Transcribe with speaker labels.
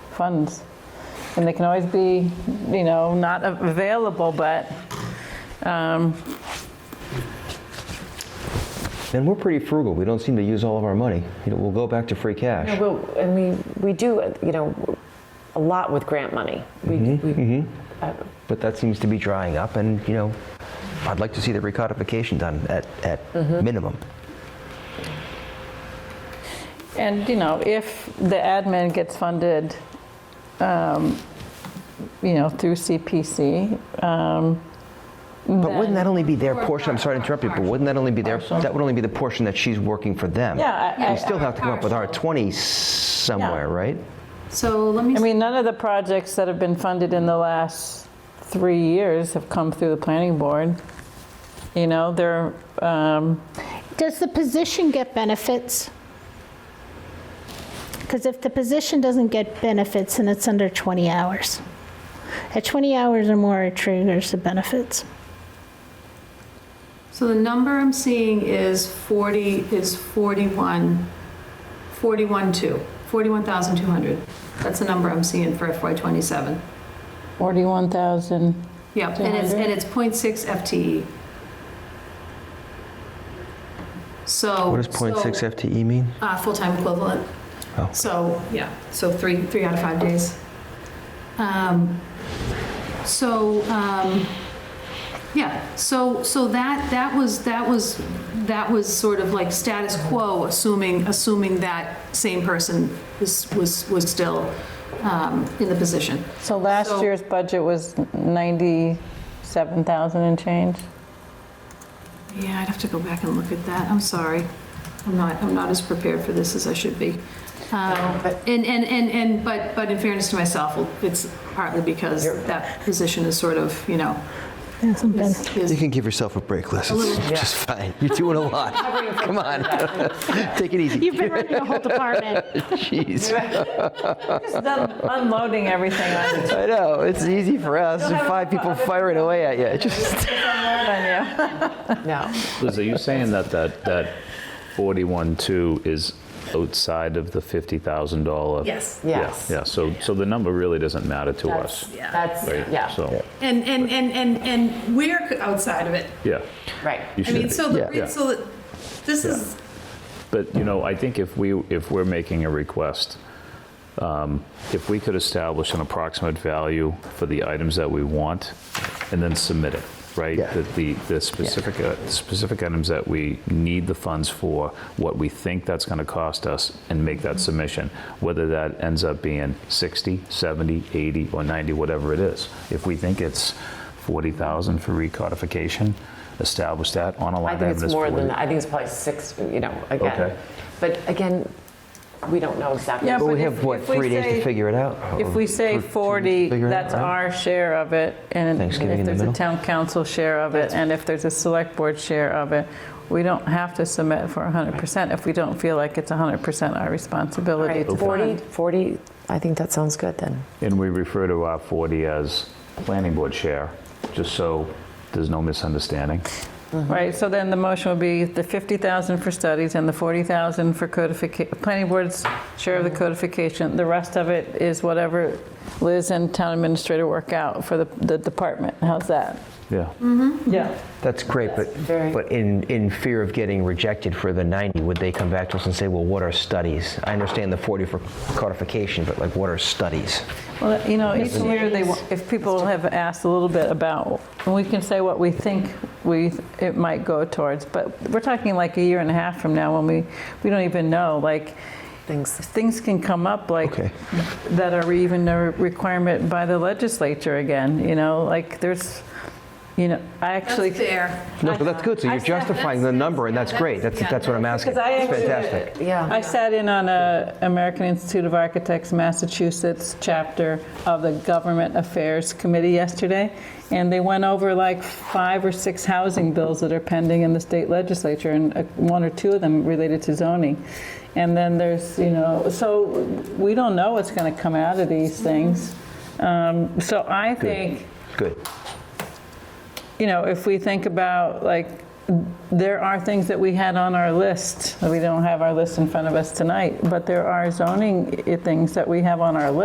Speaker 1: funds. And they can always be, you know, not available, but um,
Speaker 2: And we're pretty frugal. We don't seem to use all of our money. You know, we'll go back to free cash.
Speaker 3: Well, and we, we do, uh, you know, a lot with grant money. We,
Speaker 4: Mm-hmm,
Speaker 3: we, uh,
Speaker 2: but that seems to be drying up and you know i'd like to see the recodification done at, at minimum
Speaker 1: And, you know, if the admin gets funded, um, you know, through CPC, um,
Speaker 2: but wouldn't that only be their
Speaker 5: Or
Speaker 2: portion i'm sorry to
Speaker 5: par-
Speaker 2: interrupt you but
Speaker 5: partial.
Speaker 2: wouldn't that only be their that would only be the portion that she's working for them
Speaker 1: yeah, I-
Speaker 2: we still have to come up with our
Speaker 5: Partial.
Speaker 2: 20 somewhere right
Speaker 5: So let me,
Speaker 1: I
Speaker 5: s-
Speaker 1: mean, none of the projects that have been funded in the last three years have come through the planning board. You know, they're, um,
Speaker 6: Does the position get benefits? Because if the position doesn't get benefits, then it's under 20 hours. At 20 hours or more, it triggers the benefits.
Speaker 5: so the number I'm seeing is 40, is 41, 41, 2, 41,200. That's the number I'm seeing for FY '27.
Speaker 1: 41,000.
Speaker 5: Yep, and it's, and it's .6 FTE. So.
Speaker 2: what does 0.6 fte E mean
Speaker 5: Uh, full-time equivalent.
Speaker 2: Oh.
Speaker 5: So, yeah, so three, three out of five days. Um, So, um, yeah, so, so that, that was, that was, that was sort of like status quo, assuming, assuming that same person was, was, was still um, in the position.
Speaker 1: So last
Speaker 5: So-
Speaker 1: year's budget was 97,000 and change.
Speaker 5: Yeah, I'd have to go back and look at that, I'm sorry. I'm not, I'm not as prepared for this as I should be. Um, And, and, and, and but, but in fairness to myself, well, it's partly because that position is sort of, you know,
Speaker 6: Hasn't been.
Speaker 5: is- is
Speaker 2: you can give yourself a break liz it's just fine you're doing a lot come on take it easy
Speaker 6: You've been running a whole department.
Speaker 2: jeez
Speaker 1: Just unloading everything on you.
Speaker 2: i know it's easy for us There's five people firing away at you It just
Speaker 1: on you.
Speaker 3: no.
Speaker 4: Liz, are you saying that that, that 41.2 is outside of the $50,000?
Speaker 5: Yes.
Speaker 4: Yeah,
Speaker 3: Yes.
Speaker 4: Yeah, so, so the number really doesn't matter to us,
Speaker 3: That's, that's,
Speaker 4: right?
Speaker 3: yeah,
Speaker 4: So,
Speaker 5: And, and, and, and, and we're outside of it.
Speaker 4: yeah.
Speaker 3: right.
Speaker 4: you
Speaker 5: I
Speaker 4: should
Speaker 5: mean,
Speaker 4: be.
Speaker 5: so,
Speaker 2: Yeah.
Speaker 5: the re- so the- this is,
Speaker 4: But, you know, I think if we, if we're making a request, um, if we could establish an approximate value for the items that we want and then submit it, right?
Speaker 2: Yeah.
Speaker 4: The, the- the specific, uh, specific items that we need the funds for, what we think that's going to cost us, and make
Speaker 3: Mm-hmm.
Speaker 4: that submission, whether that ends up being 60, 70, 80, or 90, whatever it is. If we think it's 40,000 for recodification, establish that on a
Speaker 3: I
Speaker 4: line item.
Speaker 3: think it's
Speaker 4: as
Speaker 3: more
Speaker 4: 40.
Speaker 3: than that. I think it's probably six, you know, again.
Speaker 4: Okay.
Speaker 3: But again, we don't know exactly.
Speaker 1: Yeah,
Speaker 2: but we
Speaker 1: But
Speaker 2: have
Speaker 1: if-
Speaker 2: what
Speaker 1: if we
Speaker 2: three days
Speaker 1: say-
Speaker 2: to figure it out
Speaker 1: If we say
Speaker 2: Or two- two days to
Speaker 1: 40,
Speaker 2: figure it out,
Speaker 1: that's
Speaker 2: right?
Speaker 1: our share of it, and if
Speaker 2: Thanksgiving in the
Speaker 1: there's a
Speaker 2: middle?
Speaker 1: town council share of it, and if there's a select board share of it, we don't have to submit for 100% if we don't feel like it's 100% our responsibility to
Speaker 3: 40,
Speaker 1: fund.
Speaker 3: 40, I think that sounds good then.
Speaker 4: And we refer to our 40 as planning board chair, just so there's no misunderstanding.
Speaker 2: Mm-hmm.
Speaker 1: Right, so then the motion would be the 50,000 for studies and the 40,000 for codification, planning board's share of the codification. The rest of it is whatever Liz and town administrator work out for the the department. How's that?
Speaker 4: Yeah.
Speaker 1: Yeah.
Speaker 2: That's great, but,
Speaker 3: very-
Speaker 2: but in, in fear of getting rejected for the 90, would they come back to us and say, well, what are studies? I understand the 40 for codification, but like, what are studies?
Speaker 1: Well, you know, each year, they, wa- if people have asked a little bit about, and we can say what we think we, it might go towards, but we're talking like a year and a half from now when we, we don't even know, like,
Speaker 3: Things,
Speaker 1: things can come up like,
Speaker 2: Okay.
Speaker 1: that are even a requirement by the legislature again, you know, like, there's, you know, I actually.
Speaker 5: that's fair.
Speaker 2: No, but that's good, so
Speaker 1: I
Speaker 2: you're
Speaker 1: said-
Speaker 2: justifying the number, and that's great, that's,
Speaker 5: yeah,
Speaker 2: that's what I'm asking.
Speaker 1: Because I
Speaker 2: It's
Speaker 1: actually-
Speaker 2: fantastic.
Speaker 3: yeah.
Speaker 1: I sat in on a American Institute of Architects Massachusetts chapter of the Government Affairs Committee yesterday, and they went over like five or six housing bills that are pending in the state legislature, and uh, one or two of them related to zoning. And then there's, you know, so we don't know what's going to come out of these things. Um, So I think
Speaker 2: Good.
Speaker 1: you know, if we think about, like, there are things that we had on our list, we don't have our list in front of us tonight, but there are zoning i- things that we have on our list.